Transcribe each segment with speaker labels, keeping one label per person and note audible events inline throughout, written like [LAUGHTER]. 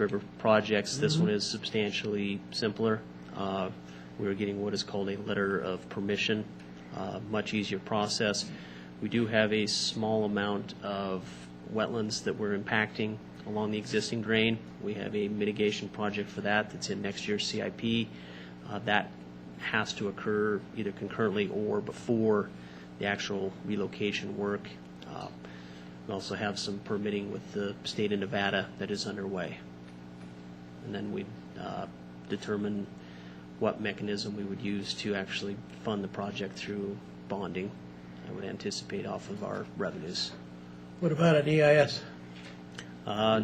Speaker 1: river projects. This one is substantially simpler. Uh, We are getting what is called a letter of permission, uh, much easier process. We do have a small amount of wetlands that we're impacting along the existing drain. We have a mitigation project for that that's in next year's CIP. Uh, That has to occur either concurrently or before the actual relocation work. Uh, We also have some permitting with the state of Nevada that is underway. And then we'd uh, determine what mechanism we would use to actually fund the project through bonding. I would anticipate off of our revenues.
Speaker 2: What about an E EIS?
Speaker 1: Uh,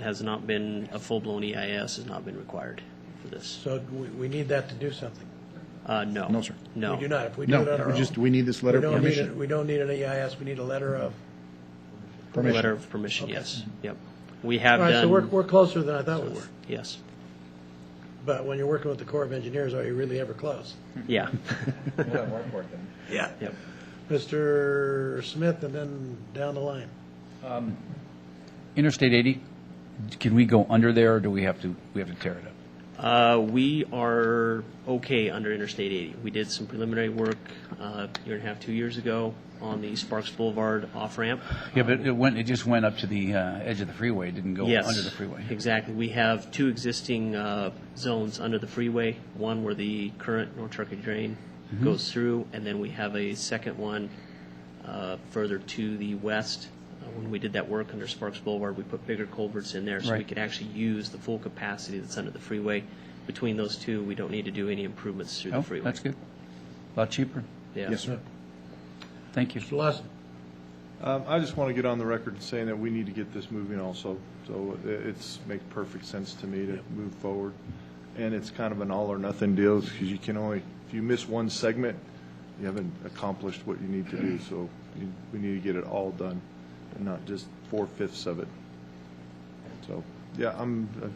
Speaker 1: Has not been, a full-blown EIS has not been required for this.
Speaker 2: So we, we need that to do something.
Speaker 1: Uh, No.
Speaker 3: No, sir.
Speaker 1: No.
Speaker 2: We do not, if we do it on
Speaker 3: No,
Speaker 2: our
Speaker 3: we just,
Speaker 2: own.
Speaker 3: we need this
Speaker 2: We
Speaker 3: letter of
Speaker 2: don't need, it-
Speaker 3: permission.
Speaker 2: we don't need an EIS, we need a letter of.
Speaker 3: Permission. Mm-hmm.
Speaker 1: Letter of permission, yes. Yep. We have
Speaker 2: All right, so we're,
Speaker 1: done,
Speaker 2: we're closer than I thought we were,
Speaker 1: yes.
Speaker 2: but when you're working with the Corps of Engineers, are you really ever close?
Speaker 3: Mm-hmm. [LAUGHS]
Speaker 1: Yeah.
Speaker 2: Yeah.
Speaker 1: Yep.
Speaker 2: Mr. Smith, and then down the line.
Speaker 4: Interstate 80, can we go under there, or do we have to, we have to tear it up?
Speaker 1: Uh, We are okay under Interstate 80. We did some preliminary work uh, a year and a half, two years ago on the Sparks Boulevard off-ramp.
Speaker 4: Yeah, but it went, it just went up to the uh, edge of the freeway, it didn't go
Speaker 1: Yes.
Speaker 4: under the freeway.
Speaker 1: Exactly. We have two existing uh, zones under the freeway, one where the current North Turkey Drain
Speaker 4: Mm-hmm.
Speaker 1: goes through, and then we have a second one uh, further to the west. Uh, When we did that work under Sparks Boulevard, we put bigger culverts in there so we
Speaker 4: Right.
Speaker 1: could actually use the full capacity that's under the freeway. Between those two, we don't need to do any improvements through the
Speaker 4: Oh,
Speaker 1: freeway.
Speaker 4: that's good. A lot cheaper.
Speaker 1: Yeah.
Speaker 3: Yes, sir.
Speaker 4: Thank you.
Speaker 2: Mr. Lawson,
Speaker 5: Um, I just want to get on the record saying that we need to get this moving also. So i- it's, makes perfect sense to me to move forward. And it's kind of an all or nothing deal because you can only, if you miss one segment, you haven't accomplished what you need to do. So you- we need to get it all done and not just four fifths of it. So, yeah, I'm, uh,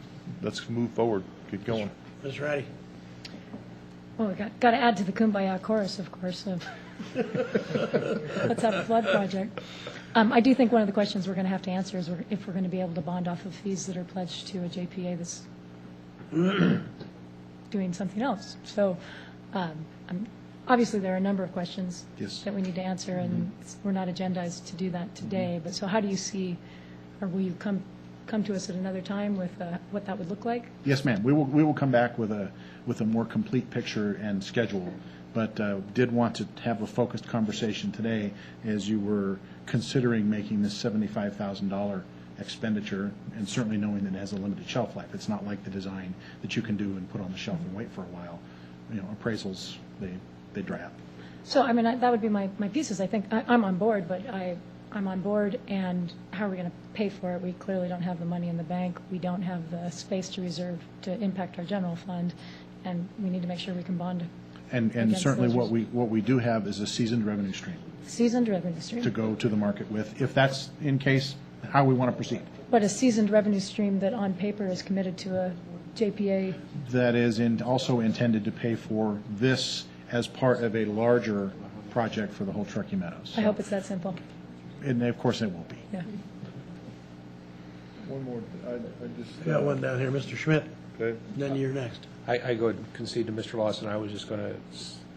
Speaker 5: let's move forward, get going.
Speaker 2: Ms. Ratty.
Speaker 6: Well, we got, got to add to the Kumbaya chorus, of course, of, [LAUGHS] let's have a flood project. Um, I do think one of the questions we're going to have to answer is we're- if we're going to be able to bond off of fees that are pledged to a JPA that's [CLEARS THROAT] doing something else. So, um, I'm- obviously, there are a number of questions
Speaker 3: Yes.
Speaker 6: that we need to answer, and it's- we're not agendized to do that today, but so how do you see, or will you come, come to us at another time with uh, what that would look like?
Speaker 3: Yes, ma'am. We will, we will come back with a, with a more complete picture and schedule, but uh, did want to have a focused conversation today as you were considering making this $75,000 expenditure, and certainly knowing that it has a limited shelf life. It's not like the design that you can do and put on the shelf and wait for a while. You know, appraisals, they, they dry up.
Speaker 6: So, I mean, I- that would be my, my pieces. I think, I, I'm on board, but I, I'm on board, and how are we going to pay for it? We clearly don't have the money in the bank. We don't have the space to reserve to impact our general fund, and we need to make sure we can bond
Speaker 3: And, and
Speaker 6: Against
Speaker 3: certainly
Speaker 6: those
Speaker 3: what
Speaker 6: res-
Speaker 3: we, what we do have is a seasoned revenue stream
Speaker 6: seasoned revenue
Speaker 3: to
Speaker 6: stream.
Speaker 3: go to the market with, if that's in case, how we want to proceed.
Speaker 6: But a seasoned revenue stream that on paper is committed to a JPA,
Speaker 3: that is in, also intended to pay for this as part of a larger project for the whole Truckee Meadows.
Speaker 6: I hope it's that simple.
Speaker 3: And of course, it will be.
Speaker 6: Yeah.
Speaker 5: One more, I, I just.
Speaker 2: We got one down here, Mr. Schmidt,
Speaker 5: Okay.
Speaker 2: then you're next.
Speaker 7: I, I go and concede to Mr. Lawson, I was just going to,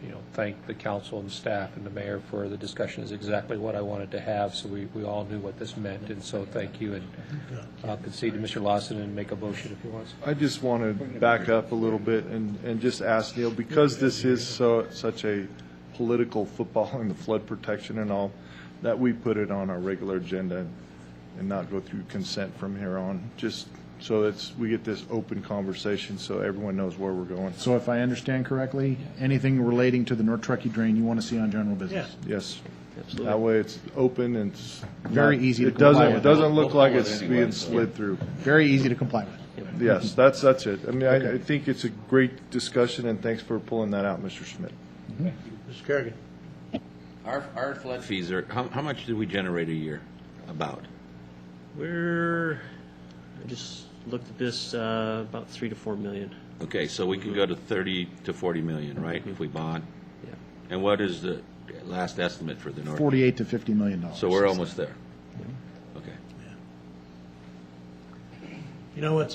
Speaker 7: you know, thank the council and staff and the mayor for the discussion is exactly what I wanted to have, so we, we all knew what this meant, and so thank you, and I'll concede to Mr. Lawson and make a motion if he wants.
Speaker 5: I just want to back up a little bit and, and just ask Neil, because this is so, such a political football [LAUGHS] and the flood protection and all, that we put it on our regular agenda and not go through consent from here on, just so that's, we get this open conversation so everyone knows where we're going.
Speaker 3: So if I understand correctly, anything relating to the North Truckee drain you want to see on general business?
Speaker 2: Yes.
Speaker 5: Yes.
Speaker 1: Absolutely.
Speaker 5: That way it's open and it's.
Speaker 3: Very
Speaker 5: not-
Speaker 3: easy to
Speaker 5: It doesn't,
Speaker 3: comply
Speaker 5: it
Speaker 3: with.
Speaker 5: doesn't look like
Speaker 8: We'll
Speaker 5: it's
Speaker 8: follow it anyway,
Speaker 5: being
Speaker 8: so-
Speaker 5: slid through.
Speaker 3: Very easy to comply with.
Speaker 5: Yes, that's, that's it. I mean, I, I think it's a great discussion and thanks for pulling that out, Mr. Schmidt.
Speaker 2: Mr. Kerrigan.
Speaker 8: Our, our flood fees are, how, how much do we generate a year? About?
Speaker 1: We're, I just looked at this, uh, about three to four million.
Speaker 8: Okay, so we could go to thirty to forty million, right, if we bond?
Speaker 1: Yeah.
Speaker 8: And what is the last estimate for the north?
Speaker 3: 48 to 50 million dollars.
Speaker 8: So we're almost there. Okay.
Speaker 2: You know what's